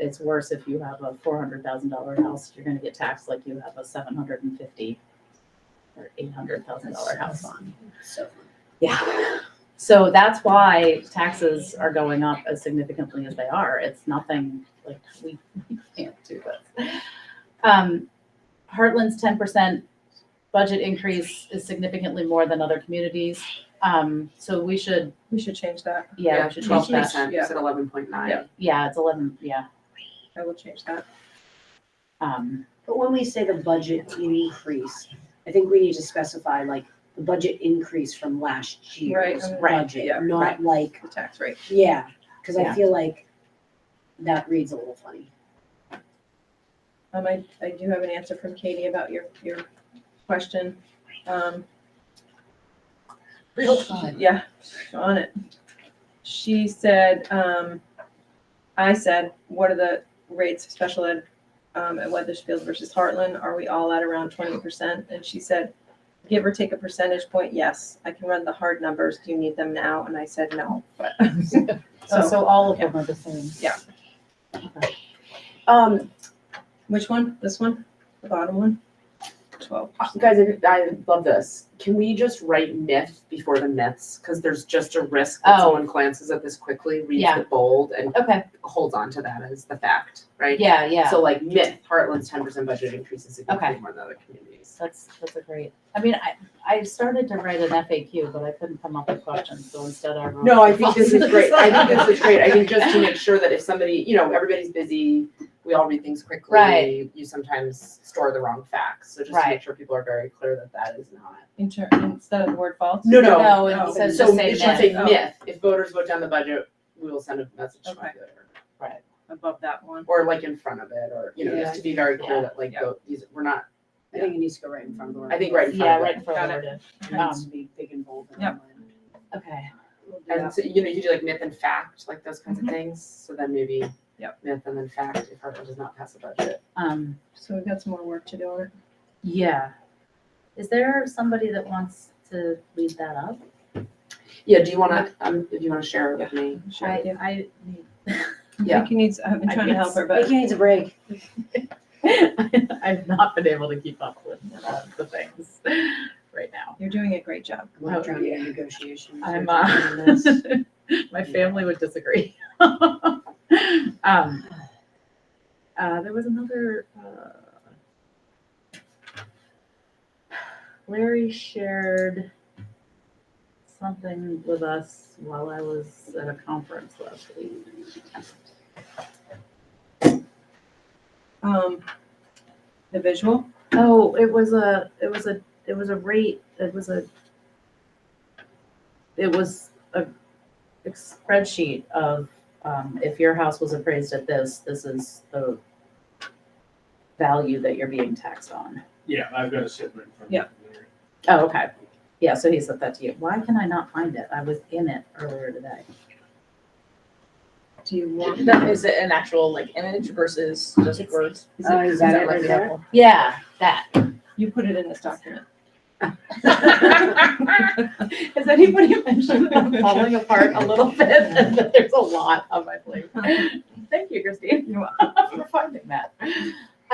it's worse if you have a four hundred thousand dollar house, you're gonna get taxed like you have a seven hundred and fifty or eight hundred thousand dollar house on. So, Yeah. So that's why taxes are going up as significantly as they are. It's nothing like we we can't do this. Um, Heartland's ten percent budget increase is significantly more than other communities. Um, so we should, We should change that. yeah, we should change change that. that. Yeah. at eleven point nine. Yeah. Yeah, it's eleven, yeah. I will change that. Um, but when we say the budget increase, I think we need to specify like the budget increase from last year's Right, right, yeah, budget, not right. like, The tax rate. yeah, because I Yeah. feel like that reads a little funny. Um, I, I do have an answer from Katie about your, your question. Um, Real time. yeah, on it. She said, um, I said, what are the rates of special ed, um, at Weathersfield versus Heartland? Are we all at around twenty percent? And she said, give or take a percentage point, yes. I can run the hard numbers. Do you need them now? And I said, no, but. so, So, so all of them are the same. Um, which one? This one? The bottom one? Twelve. guys, I, I love this. Can we just write myth before the myths? Because there's just a risk that Oh. someone glances at this quickly, reads Yeah. the bold, and Okay, holds on to that as the fact, right? yeah, yeah. So like myth, Heartland's ten percent budget increases significantly more than other communities. That's, that's a great, I mean, I, I started to write an FAQ, but I couldn't come up with questions, so instead I wrote. No, I think this is great. I think this is great. I think just to make sure that if somebody, you know, everybody's busy, we all read things quickly. Right. You sometimes store the wrong facts, so just to Right. make sure people are very clear that that is not. Inter- instead of the word false? no, No, no. instead of So just it saying should that, say Oh. myth, if voters vote down the budget, we will send a message to the Okay. voter. Above that one. Or like in front of it, or, you know, just to be very clear that like, vote- these, we're not, I think it needs to go right in front of the word. I think right in yeah, front of right it. in front of it. It needs to be big and bold. and Yep. underlined. Okay, We'll do And that. so, you know, you do like myth and fact, like those kinds of things, so then maybe Yep. myth and then fact, if Heartland does not pass a budget. um, So we've got some more work to do on it. yeah. Is there somebody that wants to lead that up? Yeah, do you wanna, um, if you wanna share it with me? Sure. I I, Yeah. think he needs, I've been I trying to help her, but Vicky needs a break. I've not been able to keep up with uh, the things right now. you're doing a great job. I'm like Oh, drowning in yeah. negotiations. I'm, We're doing this. uh, my family would disagree. um, uh, there was another. Uh, Larry shared something with us while I was at a conference last week. Um, the visual, Oh, it was a, it was a, it was a rate, it was a, it was a a spreadsheet of, um, if your house was appraised at this, this is the value that you're being taxed on. Yeah, I've got a sit right in front of Yeah. me there. Oh, okay. Yeah, so he sent that to you. Why can I not find it? I was in it earlier today. do you want? That is it an actual like image versus just words? Oh, is that it like right the there? Apple? Yeah, that. You put it in this document. Has anybody mentioned I'm falling apart a little bit and that there's a lot on my plate? Thank you, Christine, You're for finding that.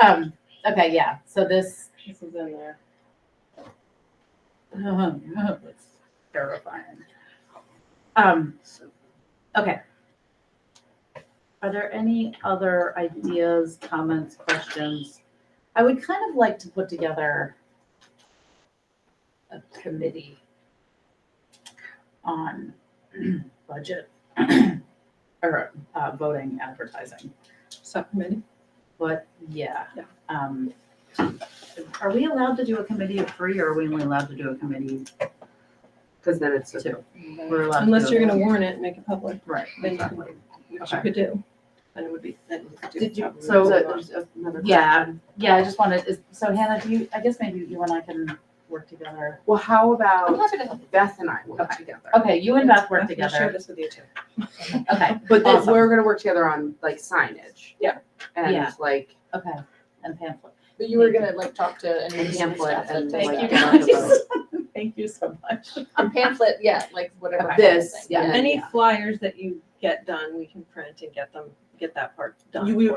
Um, okay, yeah, so this, This is in there. it's Oh, terrifying. Um, okay. Are there any other ideas, comments, questions? I would kind of like to put together a committee on budget or uh, voting advertising. Subcommittee. But yeah. Yeah. Um, are we allowed to do a committee of three or are we only allowed to do a committee? Cause then it's just. Two. We're allowed to Unless do you're it. gonna warn it, and make it public, Right. then you can, which you Okay. could do. Then it would be, then you could do. Did you, probably so what you want. there's another Yeah. question. Yeah, I just wanted, is- so Hannah, do you, I guess maybe you and I can work together. Well, how I'm about happy to help. Beth and I work Okay. together? Okay, you and Beth work I'll Share together. this with you too. Okay, But then Awesome. we're gonna work together on like signage. Yeah. And Yeah. like okay. And pamphlet. But you were gonna like talk to any of the Pamphlet staff that and, take like, that. Thank you, guys. Thank you so much. A pamphlet, yeah, like whatever. Of this, happened, yeah. Any flyers that you get done, we can print and get them, get that part done. You- we- for